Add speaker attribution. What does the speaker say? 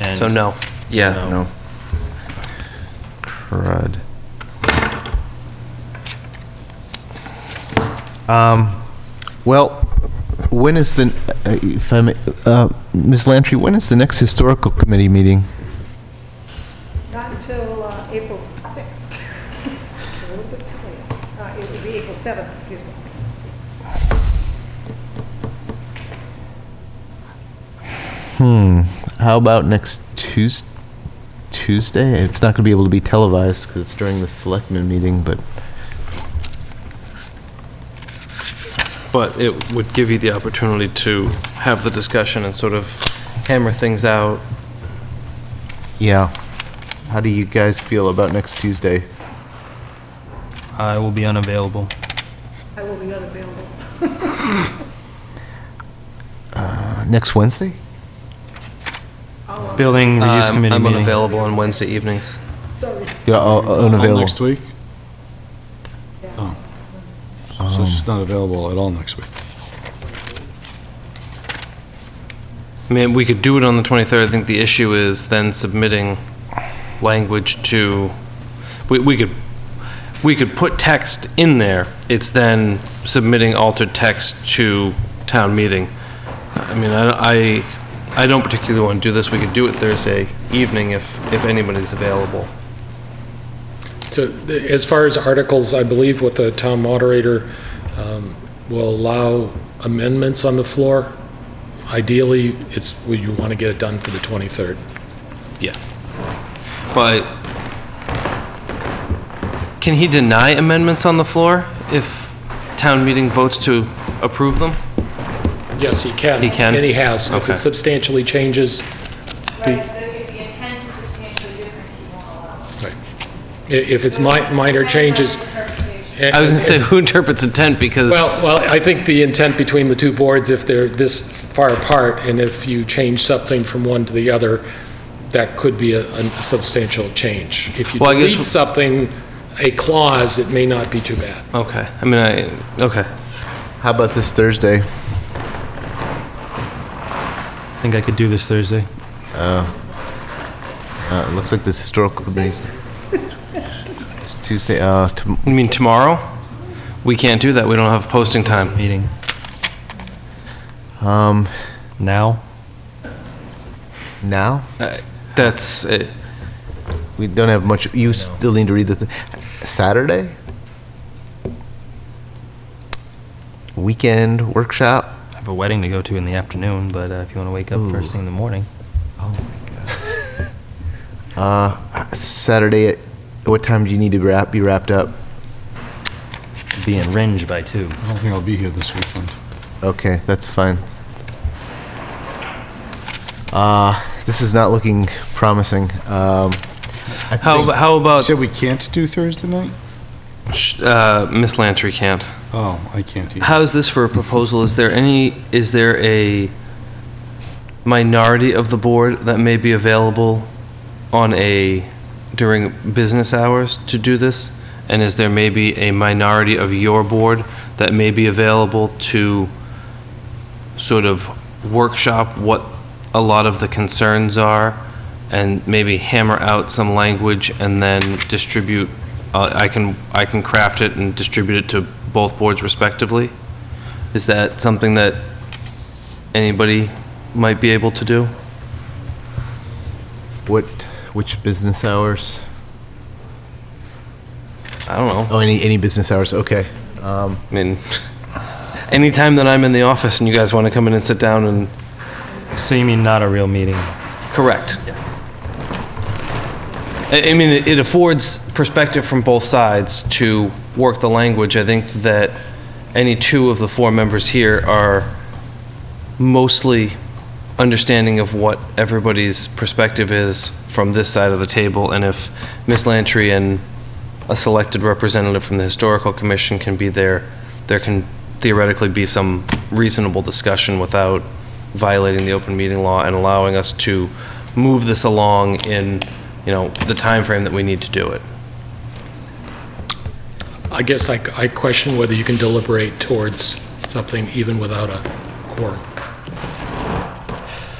Speaker 1: And
Speaker 2: So no.
Speaker 3: Yeah,
Speaker 1: No.
Speaker 3: no.
Speaker 4: Crud. Um, well, when is the, uh, if I may, uh, Ms. Lantry, when is the next historical committee meeting?
Speaker 5: Not until uh, April 6th. A little bit tight. Uh, It would be April 7th, excuse me.
Speaker 4: Hmm, how about next Tues- Tuesday? It's not gonna be able to be televised because it's during the selectmen meeting, but
Speaker 2: But it would give you the opportunity to have the discussion and sort of hammer things out.
Speaker 4: yeah. How do you guys feel about next Tuesday?
Speaker 1: I will be unavailable.
Speaker 5: I will be unavailable.
Speaker 4: Uh, Next Wednesday?
Speaker 1: Building reuse
Speaker 2: I'm-
Speaker 1: committee
Speaker 2: Um, I'm
Speaker 1: meeting.
Speaker 2: unavailable on Wednesday evenings.
Speaker 5: Sorry.
Speaker 4: Yeah, uh,
Speaker 6: All
Speaker 4: unavailable.
Speaker 6: next week?
Speaker 5: Yeah.
Speaker 6: Oh. So she's not available at all next week.
Speaker 2: I mean, we could do it on the 23rd. I think the issue is then submitting language to, we, we could, we could put text in there. It's then submitting altered text to town meeting. I mean, I, I, I don't particularly want to do this. We could do it Thursday evening if, if anybody's available.
Speaker 7: So th- as far as articles, I believe what the town moderator um, will allow amendments on the floor. Ideally, it's, well, you want to get it done for the 23rd.
Speaker 2: Yeah. But can he deny amendments on the floor if town meeting votes to approve them?
Speaker 7: Yes, he can.
Speaker 2: He can?
Speaker 7: And he has. If
Speaker 2: Okay.
Speaker 7: it substantially changes,
Speaker 8: Right, but if the intent is substantially different, you won't allow it.
Speaker 7: i- if it's mi- minor changes.
Speaker 8: Interpretation.
Speaker 2: I was gonna say, who interprets intent, because
Speaker 7: Well, well, I think the intent between the two boards, if they're this far apart, and if you change something from one to the other, that could be a a substantial change. If you
Speaker 2: Well, I guess-
Speaker 7: delete something, a clause, it may not be too bad.
Speaker 2: Okay, I mean, I, okay.
Speaker 4: How about this Thursday?
Speaker 1: I think I could do this Thursday.
Speaker 4: Uh, it looks like this historical committee's. It's Tuesday, uh, tom-
Speaker 2: You mean tomorrow? We can't do that, we don't have posting time.
Speaker 1: Meeting.
Speaker 4: um,
Speaker 1: Now?
Speaker 4: now?
Speaker 2: Uh, That's, it.
Speaker 4: We don't have much, you still need to read the, thi- Saturday? Weekend workshop?
Speaker 1: I have a wedding to go to in the afternoon, but uh, if you want to wake up first thing in the morning.
Speaker 2: Oh.
Speaker 4: Uh, Saturday, at what time do you need to wrap, be wrapped up?
Speaker 1: Be in Ringe by two.
Speaker 6: I don't think I'll be here this weekend.
Speaker 4: Okay, that's fine. Uh, this is not looking promising. Um, I
Speaker 2: how,
Speaker 4: think-
Speaker 2: how
Speaker 6: You
Speaker 2: about,
Speaker 6: said we can't do Thursday night?
Speaker 2: sh- uh, Miss Lantry can't?
Speaker 6: Oh, I can't either.
Speaker 2: How's this for a proposal? Is there any, is there a minority of the board that may be available on a, during business hours to do this? And is there maybe a minority of your board that may be available to sort of workshop what a lot of the concerns are and maybe hammer out some language and then distribute, uh, I can, I can craft it and distribute it to both boards respectively? Is that something that anybody might be able to do?
Speaker 4: What, which business hours?
Speaker 2: I don't know.
Speaker 4: Oh, any, any business hours, okay. Um,
Speaker 2: I mean, anytime that I'm in the office and you guys want to come in and sit down and,
Speaker 1: So you mean not a real meeting?
Speaker 2: correct. I, I mean, it- it affords perspective from both sides to work the language. I think that any two of the four members here are mostly understanding of what everybody's perspective is from this side of the table, and if Ms. Lantry and a selected representative from the Historical Commission can be there, there can theoretically be some reasonable discussion without violating the open meeting law and allowing us to move this along in, you know, the timeframe that we need to do it.
Speaker 7: I guess I I question whether you can deliberate towards something even without a quorum.